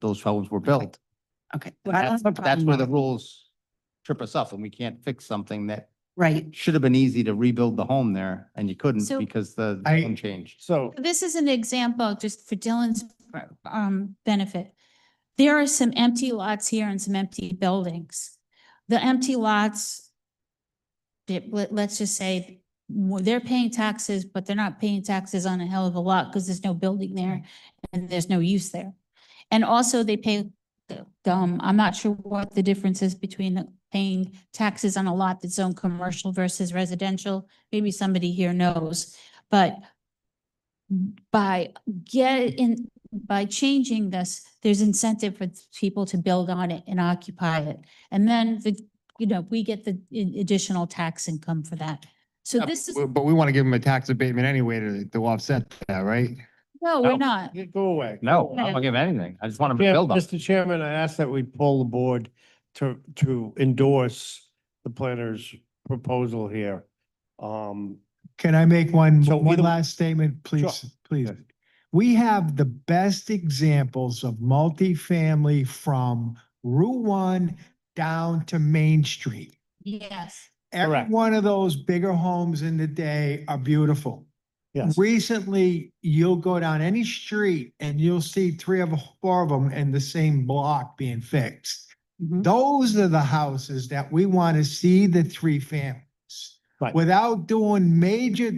those homes were built. Okay. well, I don't That's have a that's problem where the with- rules trip us up and we can't fix something that Right. should have been easy to rebuild the home there and you couldn't So- because the I- zone changed. So This is an example, just for Dylan's um benefit. There are some empty lots here and some empty buildings. The empty lots. it- let- let's just say, mo- they're paying taxes, but they're not paying taxes on a hell of a lot because there's no building there and there's no use there. And also they pay, the- um, I'm not sure what the difference is between the- paying taxes on a lot that's owned commercial versus residential. Maybe somebody here knows, but by get in, by changing this, there's incentive for people to build on it and occupy it. And then the, you know, we get the i- additional tax income for that. So Uh, this is, But but we want to give them a tax abatement anyway to, to offset that, right? no, no. we're not. Yeah, Go away. No, I don't give anything. I just want them to Yeah, build on it. Mr. Chairman, I ask that we pull the board to, to endorse the planner's proposal here. Um, Can I make one, So one either- last statement, please, please? We have the best examples of multifamily from Route One down to Main Street. Yes. Every Correct. one of those bigger homes in the day are beautiful. yes, Recently, you'll go down any street and you'll see three of, four of them in the same block being fixed. Mhm. Those are the houses that we want to see the three families. Right. Without doing major,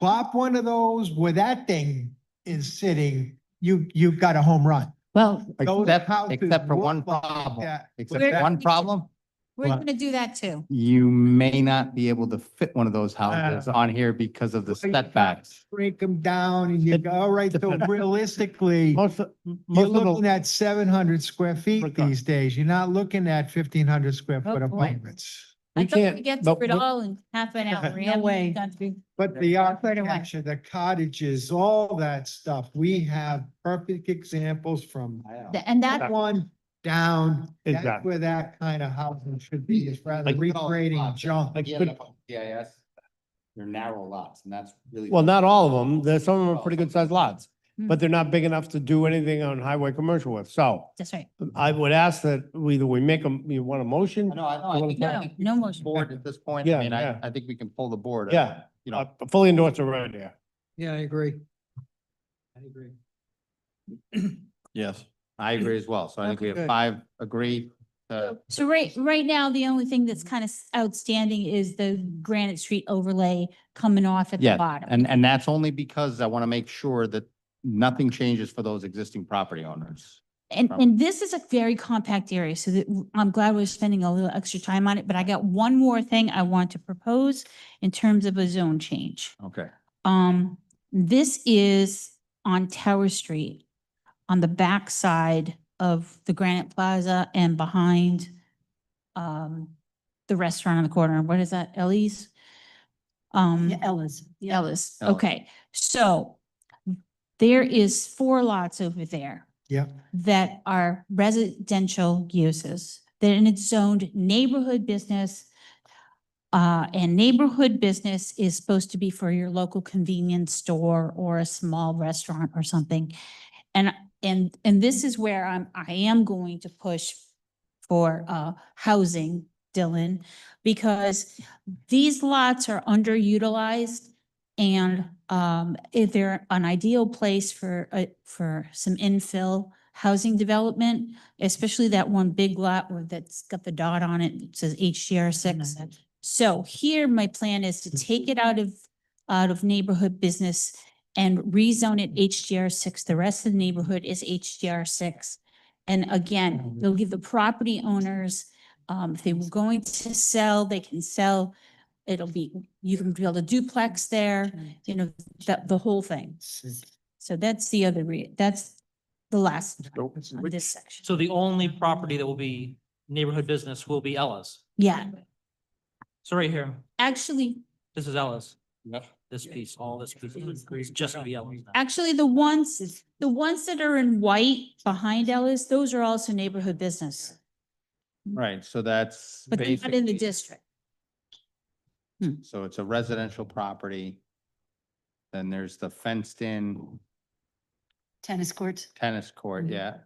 plop one of those where that thing is sitting, you, you've got a home run. Well, Those Except, houses except for look one like problem, that. except one problem, we're Well- going to do that too. you may not be able to fit one of those Ah. houses on here because of the Well, you setbacks. Break them down and you go, all right, so realistically, most, of- you're most of looking the, at seven hundred square feet Regard- these days. You're not looking at fifteen hundred square Oh, foot boy. apartments. I we thought we can't, get but through it we- all in half an hour. We No haven't way. gone through- But the I've heard of one. architecture, the cottages, all that stuff, we have perfect examples from the- And that, one down. That's Exactly. where that kind of housing should be, is rather than Like- recreating junk. Like- could- GIS, they're narrow lots and that's really. well, not all of them. There's some of them are pretty good sized lots, but Hmm. they're not big enough to do anything on highway commercial with. So that's right. I would ask that either we make them, you want a motion? No, I, no, I think- I No, think no motion. board at this point, Yeah, I mean, I, yeah. I think we can pull the board. Yeah, You I know, fully endorse the right there. Yeah, I agree. I agree. yes, I agree as well. So I think we have Okay. five agree. uh, So right, right now, the only thing that's kind of outstanding is the Granite Street overlay coming off at the Yeah, bottom. And, and that's only because I want to make sure that nothing changes for those existing property owners. And, Um, and this is a very compact area, so that, w- I'm glad we're spending a little extra time on it, but I got one more thing I want to propose in terms of a zone change. Okay. Um, this is on Tower Street, on the back side of the Granite Plaza and behind um, the restaurant on the corner. What is that, Ellie's? Um. Yeah, Ellis. yeah. Ellis, Ellis. okay, so there is four lots over there. Yep. That are residential uses, that and it's zoned neighborhood business. Uh, and neighborhood business is supposed to be for your local convenience store or a small restaurant or something. And, and, and this is where I'm, I am going to push for, uh, housing, Dylan, because these lots are underutilized and um, if they're an ideal place for, uh, for some infill housing development, especially that one big lot where that's got the dot on it, it says HDR six. So here, my plan is to take it out of, out of neighborhood business and rezone it HDR six. The rest of the neighborhood is HDR six. And again, they'll give the property owners, um, if they were going to sell, they can sell. It'll be, you can build a duplex there, you know, that, the whole thing. So that's the other re, that's the last on this section. So the only property that will be neighborhood business will be Ella's. Yeah, So right here, actually, this is Ella's. This piece, all this piece is just gonna be Ella's. now. actually, the ones, the ones that are in white behind Ellis, those are also neighborhood business. Right, so that's But they're not in the basically, district. so it's a residential property. Then there's the fenced in Tennis courts. tennis court, Mhm. yeah,